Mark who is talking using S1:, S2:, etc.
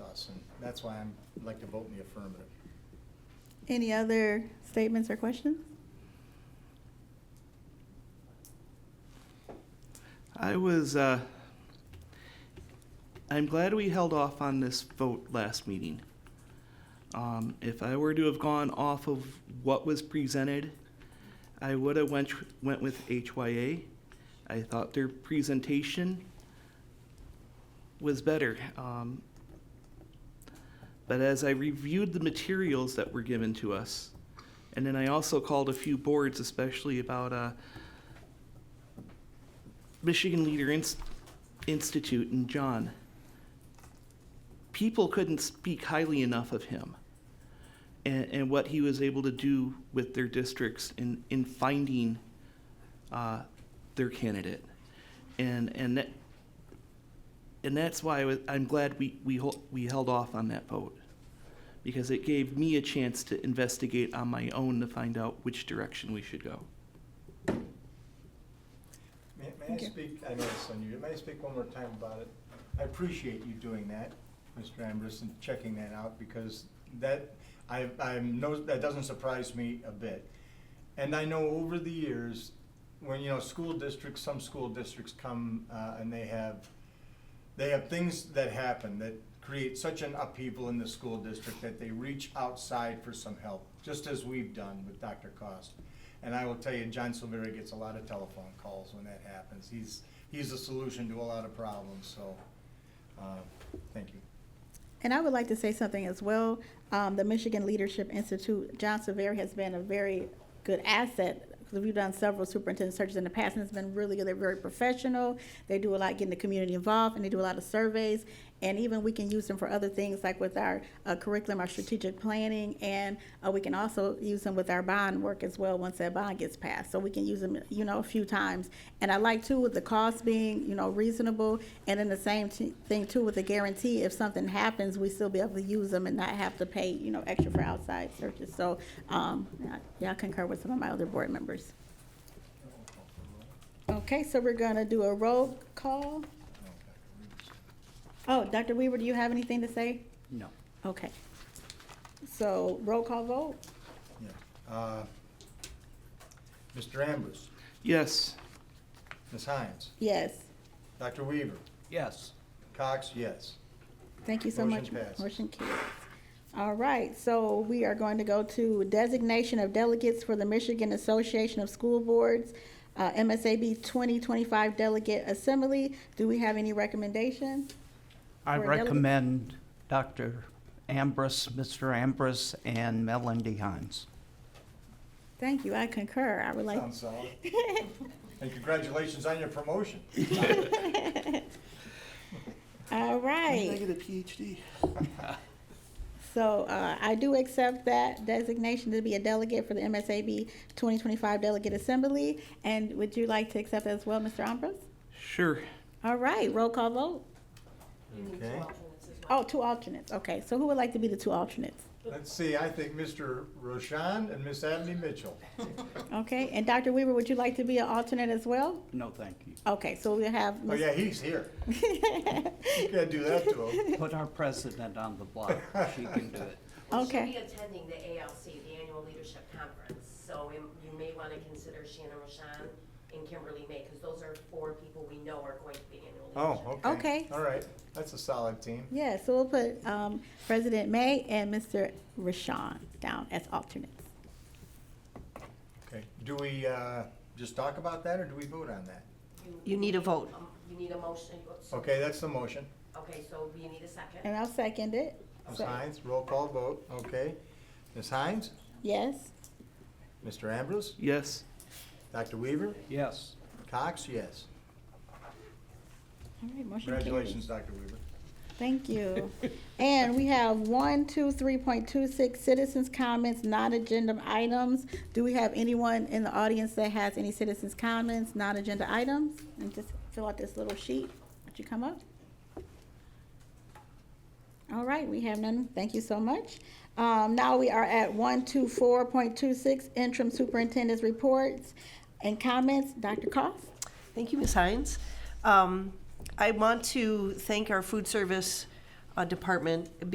S1: That's why I'm, I'd like to vote in the affirmative.
S2: Any other statements or questions?
S3: I was, uh, I'm glad we held off on this vote last meeting. Um, if I were to have gone off of what was presented, I would have went, went with HYA. I thought their presentation was better. Um, but as I reviewed the materials that were given to us, and then I also called a few boards, especially about, uh, Michigan Leader Inst- Institute and John. People couldn't speak highly enough of him and, and what he was able to do with their districts in, in finding uh, their candidate. And, and that, and that's why I was, I'm glad we, we, hol- we held off on that vote because it gave me a chance to investigate on my own to find out which direction we should go.
S1: May, may I
S2: Thank you.
S1: speak, I know it's on you, may I speak one more time about it? I appreciate you doing that, Mr. Ambrose, and checking that out, because that, I, I'm, no, that doesn't surprise me a bit. And I know over the years, when, you know, school districts, some school districts come, uh, and they have, they have things that happen that create such an upheaval in the school district that they reach outside for some help, just as we've done with Dr. Cost. And I will tell you, John Silvera gets a lot of telephone calls when that happens. He's, he's a solution to a lot of problems, so, uh, thank you.
S2: And I would like to say something as well. Um, the Michigan Leadership Institute, John Severi has been a very good asset. 'cause We've done several superintendent searches in the past, and it's been really good. They're very professional. They do a lot getting the community involved, and they do a lot of surveys. And even we can use them for other things, like with our uh, curriculum, our strategic planning, and uh, we can also use them with our bond work as well. Once that bond gets passed, so we can use them, you know, a few times. And I like too with the cost being, you know, reasonable, and then the same t- thing too with the guarantee. If something happens, we still be able to use them and not have to pay, you know, extra for outside searches. So, um, yeah, yeah, I concur with some of my other board members. Okay, so we're gonna do a roll call. Oh, Dr. Weaver, do you have anything to say?
S1: No.
S2: Okay. So roll call vote?
S1: Yeah. Uh, Mr. Ambrose,
S3: Yes.
S1: Ms. Hines,
S2: Yes.
S1: Dr. Weaver,
S4: Yes.
S1: Cox, yes.
S2: Thank you so much.
S1: Motion passed.
S2: Motion carries. All right, so we are going to go to designation of delegates for the Michigan Association of School Boards, uh, MSAB 2025 Delegate Assembly. Do we have any recommendation?
S4: I
S2: Or delegate-
S4: recommend Dr. Ambrose, Mr. Ambrose, and Melanie Hines.
S2: Thank you, I concur. I would like,
S1: Sounds solid. And congratulations on your promotion.
S2: all right.
S3: get a PhD?
S2: So uh, I do accept that designation to be a delegate for the MSAB 2025 Delegate Assembly. And would you like to accept as well, Mr. Ambrose?
S3: Sure.
S2: All right, roll call vote.
S1: Okay.
S2: Oh, two alternates. Okay, so who would like to be the two alternates?
S1: Let's see, I think Mr. Roshan and Miss Abney Mitchell.
S2: Okay, and Dr. Weaver, would you like to be an alternate as well?
S4: No, thank you.
S2: Okay, so we have.
S1: Oh,
S2: Ms.
S1: yeah, he's here. You can't do that to him.
S4: Put our president on the block. She can do it.
S5: Well, she'll
S2: Okay.
S5: be attending the ALC, the Annual Leadership Conference, so we- you may want to consider Shannon Roshan and Kimberly May, because those are four people we know are going to be annual leadership.
S1: Oh, okay.
S2: Okay.
S1: All right, that's a solid team.
S2: Yeah, so we'll put um, President May and Mr. Rashawn down as alternates.
S1: Okay, do we, uh, just talk about that, or do we vote on that?
S5: You need a vote. Um, You need a motion, so-
S1: Okay, that's the motion.
S5: okay, so we need a second.
S2: And I'll second it.
S1: Ms.
S2: So-
S1: Hines, roll call vote, okay. Ms. Hines,
S2: Yes.
S1: Mr. Ambrose,
S3: Yes.
S1: Dr. Weaver,
S4: Yes.
S1: Cox, yes.
S2: All right, motion carries.
S1: Congratulations, Dr. Weaver.
S2: Thank you. And we have one, two, three point two six, citizens' comments, non-agenda items. Do we have anyone in the audience that has any citizens' comments, non-agenda items? And just fill out this little sheet. Would you come up? All right, we have none. Thank you so much. Um, now we are at one, two, four point two six, interim superintendent's reports and comments. Dr. Cost?
S6: Thank you, Ms. Hines. Um, I want to thank our food service uh, department